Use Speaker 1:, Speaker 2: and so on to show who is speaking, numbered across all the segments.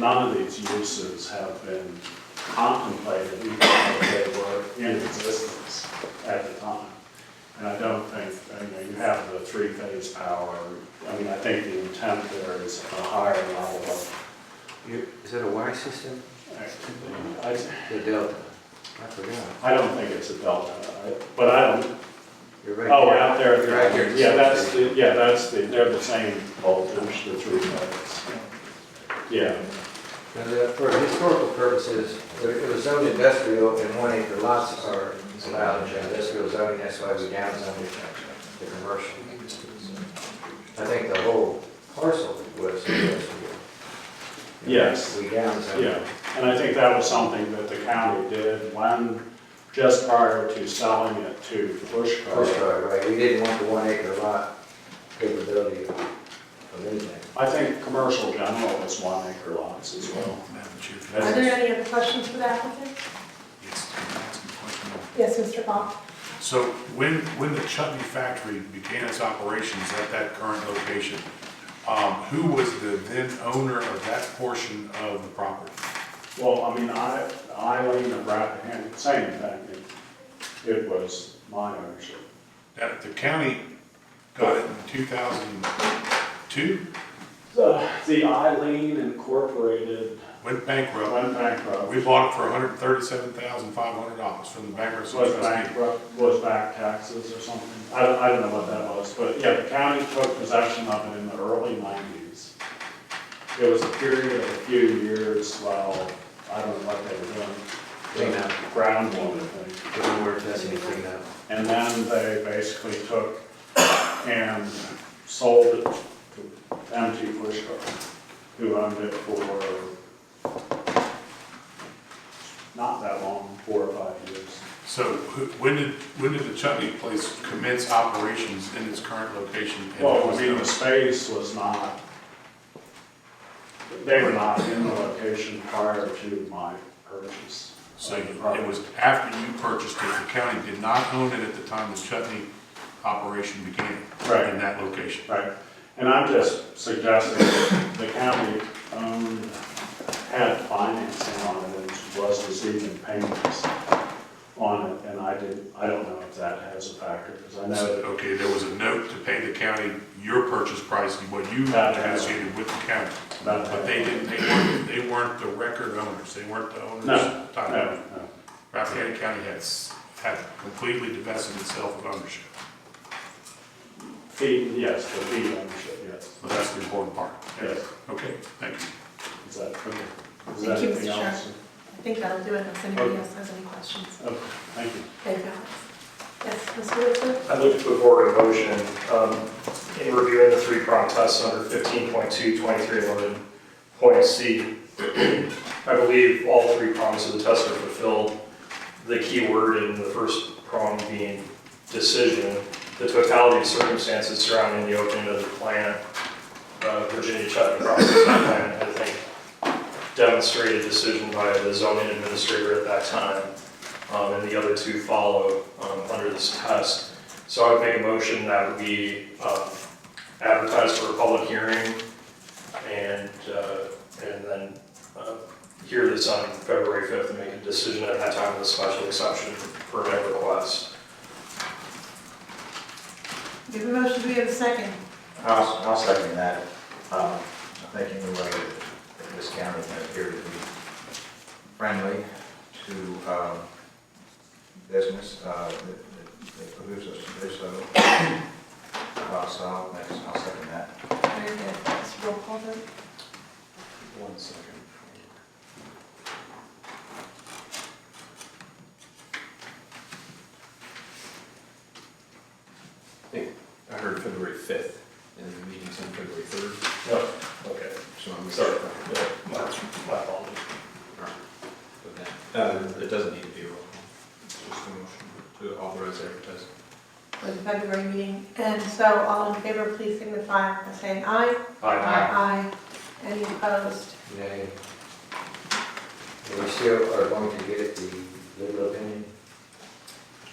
Speaker 1: None of these uses have been contemplated, even though they were in existence at the time. And I don't think, I mean, you have the three-phase power, I mean, I think the intent there is a higher level of,
Speaker 2: You- Is that a Y system?
Speaker 1: I,
Speaker 2: The delta? I forgot.
Speaker 1: I don't think it's a delta, I- but I don't,
Speaker 2: You're right.
Speaker 1: oh, out there.
Speaker 2: You're right here.
Speaker 1: Yeah, that's the, yeah, that's the, they're the same voltage, the three-phase. Yeah,
Speaker 2: And, uh, For historical purposes, it- it was zoned industrial and one acre lots are allowed in industrial zoning, that's why we downzoned it to commercial. I think the whole parcel was industrial.
Speaker 1: Yes.
Speaker 2: We downzoned
Speaker 1: Yeah,
Speaker 2: it.
Speaker 1: and I think that was something that the county did when, just prior to selling it to
Speaker 2: First
Speaker 1: Pushkar.
Speaker 2: try, Oh, right, we didn't want the one acre lot capability of of anything.
Speaker 1: I think commercial general was one acre lots as well.
Speaker 3: Madam Chair, can I
Speaker 4: Are there any other questions for the applicant?
Speaker 3: yes, can I ask a question?
Speaker 4: Yes, Mr. Bach?
Speaker 3: So when, when the chutney factory began its operations at that current location, um, who was the then owner of that portion of the property?
Speaker 1: Well, I mean, I, Eileen of Rappahannock, same thing, it, it was my ownership.
Speaker 3: That, the county got it in two thousand and two,
Speaker 1: The the Eileen Incorporated
Speaker 3: went bankrupt.
Speaker 1: went bankrupt,
Speaker 3: We bought it for hundred and thirty-seven thousand five hundred dollars from the bankruptcy
Speaker 1: was
Speaker 3: trustee.
Speaker 1: bankrupt, was back taxes or something. I don't, I don't know what that was, but yeah, the county took possession of it in the early nineties. It was a period of a few years while, I don't know what they were doing.
Speaker 2: Clean up.
Speaker 1: Ground water thing.
Speaker 2: Didn't work, that's anything now.
Speaker 1: And then they basically took and sold it to MT Pushkar, who owned it for not that long, four or five years.
Speaker 3: So who, when did, when did the chutney place commence operations in its current location? and who
Speaker 1: Well, I
Speaker 3: was
Speaker 1: mean,
Speaker 3: the-
Speaker 1: the space was not, they were not in the location prior to my purchase.
Speaker 3: So
Speaker 1: of the property.
Speaker 3: it was after you purchased it, the county did not own it at the time the chutney operation began
Speaker 1: Right.
Speaker 3: in that location.
Speaker 1: Right, and I'm just suggesting that the county owned, had financing on it and was receiving payments on it, and I didn't, I don't know if that has a factor, because I
Speaker 3: So,
Speaker 1: know that
Speaker 3: Okay, there was a note to pay the county your purchase price, and what you
Speaker 1: Not that.
Speaker 3: negotiated with the county.
Speaker 1: Not that.
Speaker 3: But they didn't, they weren't, they weren't the record owners, they weren't the owners.
Speaker 1: No,
Speaker 3: at the time.
Speaker 1: No, no.
Speaker 3: Rappahannock County had, s- had completely divested itself of ownership,
Speaker 1: Fee, yes, the fee ownership, yes,
Speaker 3: but that's the important part.
Speaker 1: yes,
Speaker 3: Okay, thank you.
Speaker 1: is that, is
Speaker 4: you,
Speaker 1: that
Speaker 4: Mr.
Speaker 1: anything
Speaker 4: Chair.
Speaker 1: else?
Speaker 4: I think that'll do it, unless anybody else has any questions.
Speaker 1: Okay, thank you.
Speaker 4: Thank you, Alex. Yes, Mr. Whitson?
Speaker 5: I'd like to put forward a motion um, in reviewing the three-prong test under 15.2.2311.c. I believe all three prongs of the test are fulfilled. The key word in the first prong being decision, the totality of circumstances surrounding the opening of the plant, uh, Virginia Chutney processing plant, I think demonstrated decision by the zoning administrator at that time, um, and the other two follow um, under this test. So I would make a motion that we um, advertise for a public hearing and, uh, and then uh, hear this on February 5th and make a decision at that time with a special exception permit request.
Speaker 4: We have a motion, we have a second.
Speaker 6: I'll, I'll second that. Um, I think in the way that this county can appear to be friendly to, um, business, uh, that, that- that behooves us to do so. Uh, so I'll, make- I'll second that.
Speaker 4: Very good. Let's roll call vote.
Speaker 3: One second.
Speaker 7: I heard February fifth, and the meeting's on February third,
Speaker 5: No, Oh, okay,
Speaker 7: so I'm.
Speaker 5: sorry. Yeah, My my apologies.
Speaker 7: But then, uh, it doesn't need to be a roll call, it's just a motion to authorize advertising.
Speaker 4: for the February meeting. And so all in favor, please signify by saying aye. Aye. Any opposed?
Speaker 2: Nay. And we still are going to get the legal opinion?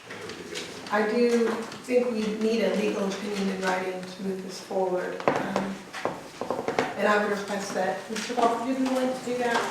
Speaker 2: That would be good.
Speaker 4: I do think we need a legal opinion in writing to move this forward. Um, And I would request that Mr. Walker, do you want to do that?